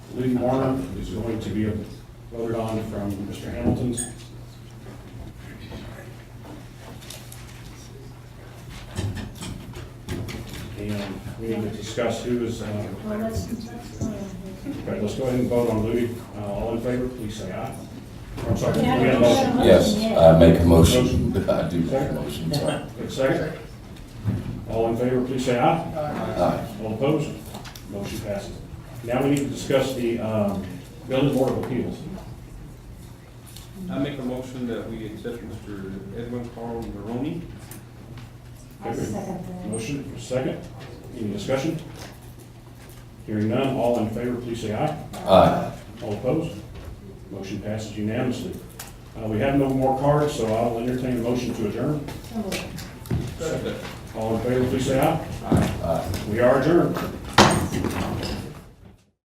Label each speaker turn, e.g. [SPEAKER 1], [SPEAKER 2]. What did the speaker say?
[SPEAKER 1] Lee Warner is going to be voted on from Mr. Hamilton's. And we need to discuss who is, uh,
[SPEAKER 2] Well, that's, that's, uh,
[SPEAKER 1] okay, let's go ahead and vote on Louis. Uh, All in favor, please say aye. I'm sorry, we had a motion.
[SPEAKER 3] Yes, I make a motion. I do make a motion, sorry.
[SPEAKER 1] Good second. All in favor, please say aye.
[SPEAKER 3] Aye.
[SPEAKER 1] All opposed? Motion passes. Now we need to discuss the um, Building Board of Appeals.
[SPEAKER 4] I make a motion that we accept Mr. Edwin Carl Maroney.
[SPEAKER 2] I second
[SPEAKER 1] Motion, for second. Any discussion? Hearing none, all in favor, please say aye.
[SPEAKER 3] Aye.
[SPEAKER 1] All opposed? Motion passes unanimously. Uh, We have no more cards, so I'll entertain a motion to adjourn.
[SPEAKER 2] that. So moved.
[SPEAKER 4] Second.
[SPEAKER 1] All in favor, please say aye.
[SPEAKER 4] Aye.
[SPEAKER 3] Aye.
[SPEAKER 1] We are adjourned.